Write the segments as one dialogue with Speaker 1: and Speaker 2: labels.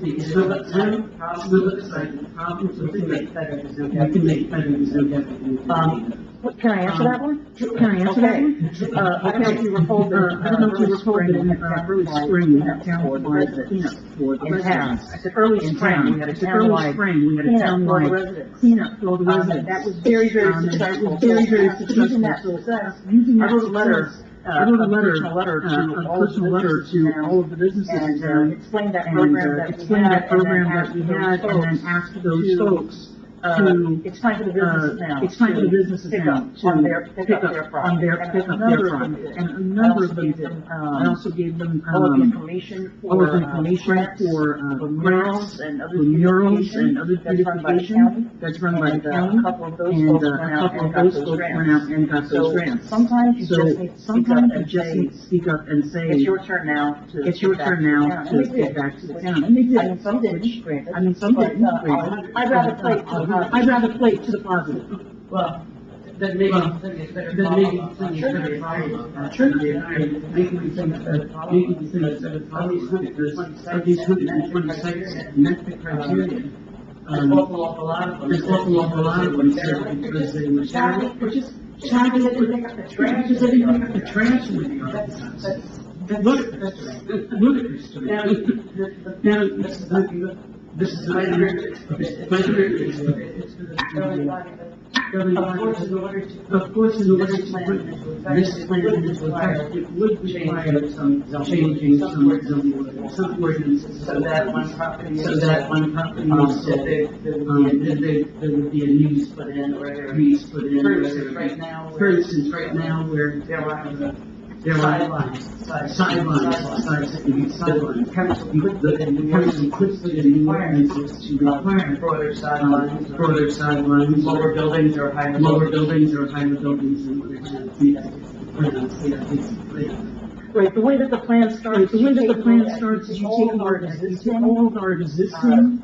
Speaker 1: the exhibit M, exhibit C, copies of the minutes. We can make that an exhibit. Um,
Speaker 2: What, can I answer that one? Can I answer that one?
Speaker 1: uh, I don't know if you recall, uh, I don't know if you recall, but, uh, early spring, we had townwide cleanup for the
Speaker 2: In town.
Speaker 1: residents.
Speaker 2: I said early spring, we had a
Speaker 1: It's Early
Speaker 2: townwide
Speaker 1: spring, we had a
Speaker 2: cleanup for the
Speaker 1: townwide
Speaker 2: residents.
Speaker 1: cleanup for the
Speaker 2: Um,
Speaker 1: residents.
Speaker 2: and that was very, very
Speaker 1: Um, and that
Speaker 2: successful.
Speaker 1: was Very, very
Speaker 2: So,
Speaker 1: successful.
Speaker 2: Using that success,
Speaker 1: Using
Speaker 2: I
Speaker 1: that
Speaker 2: wrote a letter,
Speaker 1: success,
Speaker 2: uh,
Speaker 1: I wrote a letter,
Speaker 2: personal letter
Speaker 1: uh,
Speaker 2: to
Speaker 1: a
Speaker 2: all the
Speaker 1: personal letter
Speaker 2: businesses in
Speaker 1: to
Speaker 2: town
Speaker 1: all of the businesses in
Speaker 2: and,
Speaker 1: town.
Speaker 2: uh, explained that
Speaker 1: and
Speaker 2: program
Speaker 1: uh,
Speaker 2: that we
Speaker 1: explain
Speaker 2: had,
Speaker 1: that
Speaker 2: and then
Speaker 1: program that
Speaker 2: asked
Speaker 1: we
Speaker 2: those
Speaker 1: had, and then
Speaker 2: folks
Speaker 1: ask those
Speaker 2: to,
Speaker 1: folks
Speaker 2: uh,
Speaker 1: to,
Speaker 2: it's time for the
Speaker 1: uh,
Speaker 2: businesses now.
Speaker 1: it's time for the
Speaker 2: to
Speaker 1: businesses
Speaker 2: pick
Speaker 1: now
Speaker 2: up
Speaker 1: to
Speaker 2: On their, pick up their
Speaker 1: on
Speaker 2: product.
Speaker 1: their,
Speaker 2: And
Speaker 1: pick up
Speaker 2: another
Speaker 1: their
Speaker 2: one
Speaker 1: product.
Speaker 2: did.
Speaker 1: And a number
Speaker 2: I also
Speaker 1: of them
Speaker 2: gave
Speaker 1: did.
Speaker 2: them,
Speaker 1: I
Speaker 2: um,
Speaker 1: also gave them,
Speaker 2: all of the
Speaker 1: um,
Speaker 2: information
Speaker 1: all of
Speaker 2: for,
Speaker 1: the
Speaker 2: uh,
Speaker 1: information
Speaker 2: grants,
Speaker 1: for, uh,
Speaker 2: for
Speaker 1: grants,
Speaker 2: murals and other
Speaker 1: for murals and other
Speaker 2: that's run by the county.
Speaker 1: beautification that's run by the
Speaker 2: And uh, a
Speaker 1: county.
Speaker 2: couple of those
Speaker 1: And
Speaker 2: folks
Speaker 1: uh, a
Speaker 2: went out
Speaker 1: couple
Speaker 2: and
Speaker 1: of
Speaker 2: got
Speaker 1: those
Speaker 2: those
Speaker 1: folks
Speaker 2: grants.
Speaker 1: went out and got those
Speaker 2: So
Speaker 1: grants.
Speaker 2: sometimes you
Speaker 1: So
Speaker 2: just need to speak up
Speaker 1: sometimes you
Speaker 2: and
Speaker 1: just
Speaker 2: say,
Speaker 1: need to speak up and say,
Speaker 2: it's your turn now to.
Speaker 1: it's your
Speaker 2: get back
Speaker 1: turn
Speaker 2: to the
Speaker 1: now to
Speaker 2: town." And they
Speaker 1: get
Speaker 2: did.
Speaker 1: back to the
Speaker 2: Which-
Speaker 1: town. And they did.
Speaker 2: I mean, some didn't, granted.
Speaker 1: I mean, some
Speaker 2: but,
Speaker 1: didn't,
Speaker 2: uh,
Speaker 1: granted.
Speaker 2: I'd rather play to the
Speaker 1: I'd
Speaker 2: positive.
Speaker 1: rather play to the positive.
Speaker 3: Well, then maybe, then it's better.
Speaker 1: Then maybe
Speaker 3: follow-up.
Speaker 1: things
Speaker 3: Sure.
Speaker 1: that are, sure, and maybe we think that, maybe we think that are these hoodies, are these hoodies, twenty-six, met the criteria.
Speaker 3: There's an
Speaker 1: Um,
Speaker 3: awful, awful lot of them.
Speaker 1: there's an awful, awful lot of them there because they were
Speaker 3: Charlie,
Speaker 1: terrible.
Speaker 3: we're just,
Speaker 1: Charlie, they didn't
Speaker 3: up the
Speaker 1: Trash is everything, but the trash would be.
Speaker 3: That's, that's, that's.
Speaker 1: Ludicrous, ludicrous to
Speaker 3: Now,
Speaker 1: me.
Speaker 3: the,
Speaker 1: Now, this is, the- this is, the- this is, my theory.
Speaker 3: the, really body, but of course, in order to.
Speaker 1: Of course, in order
Speaker 3: This
Speaker 1: to
Speaker 3: plan
Speaker 1: put
Speaker 3: is required.
Speaker 1: this plan into effect, it would require some changing,
Speaker 3: Some
Speaker 1: some, some,
Speaker 3: ordinances.
Speaker 1: some ordinances.
Speaker 3: So that one property. is-
Speaker 1: So that one property
Speaker 3: Um,
Speaker 1: is,
Speaker 3: so
Speaker 1: sold.
Speaker 3: there, there
Speaker 1: um,
Speaker 3: would be a
Speaker 1: then there, there would be a news put in, or a news put in.
Speaker 3: For
Speaker 1: or-
Speaker 3: instance, right now,
Speaker 1: For
Speaker 3: we're-
Speaker 1: instance, right now, where
Speaker 3: There are
Speaker 1: there are
Speaker 3: sidelines, sidelines.
Speaker 1: sidelines, sidelines, sidelines.
Speaker 3: The council
Speaker 1: You
Speaker 3: could
Speaker 1: put
Speaker 3: put in
Speaker 1: the,
Speaker 3: new
Speaker 1: person puts the new ordinances to require,
Speaker 3: broader
Speaker 1: um,
Speaker 3: sidelines, or
Speaker 1: further sidelines.
Speaker 3: lower buildings or higher
Speaker 1: lower
Speaker 3: buildings.
Speaker 1: buildings or higher buildings in order to meet, meet, meet.
Speaker 2: Right, the way that the plan
Speaker 1: Right,
Speaker 2: starts.
Speaker 1: the way that
Speaker 2: you
Speaker 1: the
Speaker 2: take
Speaker 1: plan
Speaker 2: all that,
Speaker 1: starts is you
Speaker 2: all
Speaker 1: take
Speaker 2: of
Speaker 1: our
Speaker 2: our
Speaker 1: existing,
Speaker 2: existing
Speaker 1: all of our existing,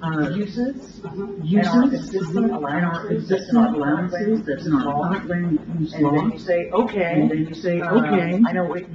Speaker 1: uh,
Speaker 2: uses and
Speaker 1: uses.
Speaker 2: our existing
Speaker 1: and our
Speaker 2: allowances that's
Speaker 1: existing
Speaker 2: in our land
Speaker 1: allowances
Speaker 2: use
Speaker 1: that's in our
Speaker 2: law.
Speaker 1: lot land use
Speaker 2: And
Speaker 1: law.
Speaker 2: then you say, okay.
Speaker 1: And then you say,
Speaker 2: uh,
Speaker 1: okay,
Speaker 2: I know it used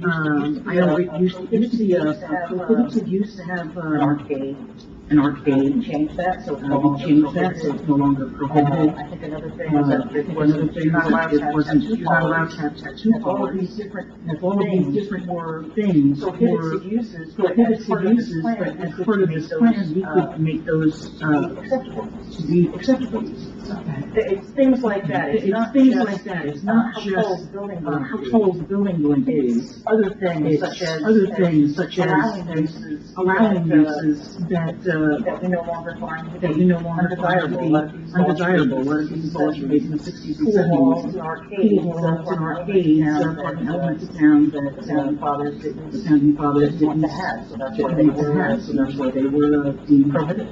Speaker 1: um,
Speaker 2: to- used to be.
Speaker 1: I know it
Speaker 2: a-
Speaker 1: used, it used to be a,
Speaker 2: used to have, uh,
Speaker 1: it used to have,
Speaker 2: An
Speaker 1: uh,
Speaker 2: arcade, Oh,
Speaker 1: an
Speaker 2: we
Speaker 1: arcade.
Speaker 2: changed that, so. it's
Speaker 1: Uh,
Speaker 2: no
Speaker 1: we
Speaker 2: longer
Speaker 1: changed that, so
Speaker 2: prohibited.
Speaker 1: it's no longer
Speaker 2: Uh,
Speaker 1: prohibited.
Speaker 2: I think another thing was
Speaker 1: Uh,
Speaker 2: that
Speaker 1: it
Speaker 2: it
Speaker 1: wasn't,
Speaker 2: wasn't, you're not allowed to
Speaker 1: it
Speaker 2: have
Speaker 1: wasn't,
Speaker 2: tattoo
Speaker 1: you're not allowed
Speaker 2: parlors.
Speaker 1: to have tattoo
Speaker 2: And all of
Speaker 1: parlors.
Speaker 2: these different
Speaker 1: And all of these
Speaker 2: things.
Speaker 1: different more things
Speaker 2: So
Speaker 1: were
Speaker 2: prohibited uses, but as
Speaker 1: prohibited
Speaker 2: part of this
Speaker 1: uses,
Speaker 2: plan,
Speaker 1: but
Speaker 2: we
Speaker 1: as
Speaker 2: could
Speaker 1: part of
Speaker 2: make
Speaker 1: this
Speaker 2: those,
Speaker 1: plan, we
Speaker 2: uh,
Speaker 1: could make those, uh,
Speaker 2: acceptable.
Speaker 1: to be acceptable. It's
Speaker 2: Th- It's things like that, it's not
Speaker 1: things
Speaker 2: just,
Speaker 1: like that, it's
Speaker 2: uh,
Speaker 1: not
Speaker 2: household
Speaker 1: just,
Speaker 2: building
Speaker 1: uh,
Speaker 2: boundaries.
Speaker 1: household building going
Speaker 2: It's
Speaker 1: is.
Speaker 2: other things
Speaker 1: It's
Speaker 2: such as.
Speaker 1: other things such as
Speaker 2: Allowing uses.
Speaker 1: allowing
Speaker 2: that, uh,
Speaker 1: uses that,
Speaker 2: That we no longer find.
Speaker 1: uh, that we no longer find to
Speaker 2: Undesirable,
Speaker 1: be
Speaker 2: like these
Speaker 1: undesirable,
Speaker 2: large
Speaker 1: whether these large
Speaker 2: buildings,
Speaker 1: buildings in the sixties and
Speaker 2: Pool halls
Speaker 1: seventies.
Speaker 2: and arcades.
Speaker 1: Pool halls and arcades, up on elements of town
Speaker 2: The
Speaker 1: that, uh,
Speaker 2: founding fathers didn't.
Speaker 1: the founding fathers
Speaker 2: Didn't want
Speaker 1: didn't
Speaker 2: to have, so that's why they
Speaker 1: didn't
Speaker 2: were.
Speaker 1: have, so that's why they were, uh, deemed
Speaker 2: Prohibited.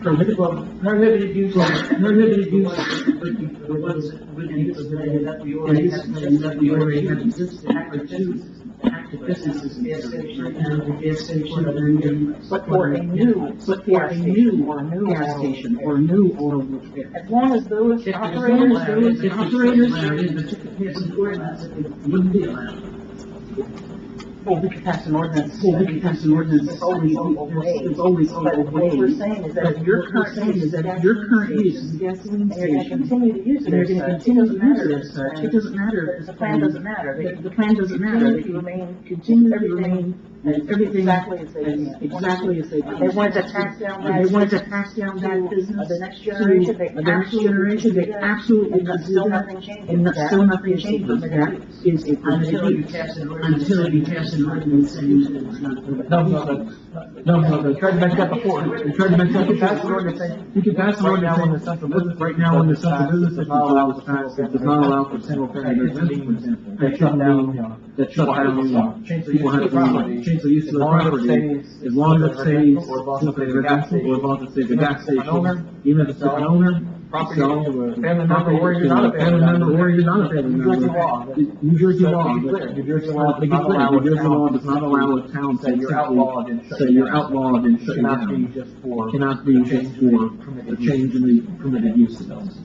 Speaker 1: prohibited.
Speaker 3: Prohibited use.
Speaker 1: Prohibited use, but you- the ones that would
Speaker 3: And
Speaker 1: be
Speaker 3: this is
Speaker 1: prohibited.
Speaker 3: that we
Speaker 1: And
Speaker 3: already
Speaker 1: this
Speaker 3: have.
Speaker 1: is something that we already have
Speaker 3: existing.
Speaker 1: existing, active businesses, active businesses, gas station, and the gas station, and then.
Speaker 2: But for a new.
Speaker 1: But for a
Speaker 2: gas
Speaker 1: new,
Speaker 2: station or a new
Speaker 1: gas
Speaker 2: auto
Speaker 1: station,
Speaker 2: repair.
Speaker 1: or a new auto repair.
Speaker 2: As long as those
Speaker 1: If there's
Speaker 2: operators.
Speaker 1: owners, there is- if operators, there is a wouldn't be allowed.
Speaker 2: Well, we could pass an ordinance.
Speaker 1: Well, we can pass an ordinance, it's
Speaker 2: It's
Speaker 1: always,
Speaker 2: always
Speaker 1: it's always
Speaker 2: But what we're
Speaker 1: overweight.
Speaker 2: saying is that
Speaker 1: But
Speaker 2: if
Speaker 1: your
Speaker 2: your
Speaker 1: current
Speaker 2: current
Speaker 1: saying
Speaker 2: use
Speaker 1: is
Speaker 2: is
Speaker 1: that your current use is a gasoline
Speaker 2: And you're gonna
Speaker 1: station.
Speaker 2: continue to use it.
Speaker 1: And they're gonna
Speaker 2: as such,
Speaker 1: continue to
Speaker 2: doesn't
Speaker 1: use it
Speaker 2: matter.
Speaker 1: as such,
Speaker 2: And
Speaker 1: it doesn't matter. if
Speaker 2: The plan doesn't matter. They
Speaker 1: The, the plan doesn't matter,
Speaker 2: continue
Speaker 1: they
Speaker 2: to
Speaker 1: can
Speaker 2: remain,
Speaker 1: continue
Speaker 2: continue
Speaker 1: to
Speaker 2: everything.
Speaker 1: remain, and everything.
Speaker 2: Exactly as they
Speaker 1: and
Speaker 2: did.
Speaker 1: Exactly as they.
Speaker 2: They wanted to pass down
Speaker 1: And They
Speaker 2: that
Speaker 1: wanted to pass down that
Speaker 2: to
Speaker 1: business.
Speaker 2: the next generation,
Speaker 1: to
Speaker 2: they
Speaker 1: The next
Speaker 2: absolutely
Speaker 1: generation,
Speaker 2: do
Speaker 1: they
Speaker 2: that.
Speaker 1: absolutely
Speaker 2: And
Speaker 1: do
Speaker 2: that's still
Speaker 1: that,
Speaker 2: nothing changes.
Speaker 1: and that's
Speaker 2: That
Speaker 1: still nothing
Speaker 2: is a
Speaker 1: changes, that
Speaker 2: permitted
Speaker 1: is
Speaker 2: use.
Speaker 3: Until
Speaker 1: a
Speaker 3: you
Speaker 1: permitted use.
Speaker 3: pass an ordinance.
Speaker 1: Until you pass an ordinance saying that it's not permitted.
Speaker 4: No, no, no, no, no, they tried to make that before, they tried to make that.
Speaker 3: You can pass an ordinance saying-
Speaker 4: You can pass an
Speaker 5: Right now, when
Speaker 4: ordinance
Speaker 5: the
Speaker 4: saying,
Speaker 5: central business.
Speaker 4: right now, in the central business,
Speaker 5: does
Speaker 4: it
Speaker 5: not allow for
Speaker 4: it does not allow for single family residence, for example. That shut down, that shut down,
Speaker 5: Change the
Speaker 4: people
Speaker 5: use
Speaker 4: have
Speaker 5: of
Speaker 4: to
Speaker 5: the property.
Speaker 4: leave, change the use of the property. As long as it stays, single family residence, or as long as it stays a gas station, even if it's an owner,
Speaker 5: Property,
Speaker 4: So, uh,
Speaker 5: family member, or you're not a family
Speaker 4: family member,
Speaker 5: member.
Speaker 4: or you're not a family
Speaker 5: New Jersey
Speaker 4: member.
Speaker 5: law.
Speaker 4: New Jersey
Speaker 5: So, to
Speaker 4: law,
Speaker 5: be
Speaker 4: but-
Speaker 5: clear, New Jersey law
Speaker 4: To
Speaker 5: does
Speaker 4: be
Speaker 5: not
Speaker 4: clear,
Speaker 5: allow
Speaker 4: New Jersey law
Speaker 5: a
Speaker 4: does not allow a town
Speaker 5: Say
Speaker 4: to
Speaker 5: you're
Speaker 4: simply-
Speaker 5: outlawed and shut
Speaker 4: Say
Speaker 5: down.
Speaker 4: you're outlawed and shut
Speaker 5: Cannot be
Speaker 4: down.
Speaker 5: just for.
Speaker 4: Cannot be just for a change in the permitted use of those.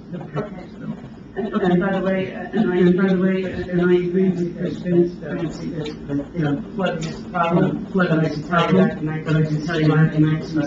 Speaker 1: And, and by the way, and I, and by the way, and I agree with Chris Finn's, uh, you know, flood, problem, flood, and I can tell you that, and I and I can tell you that, and I can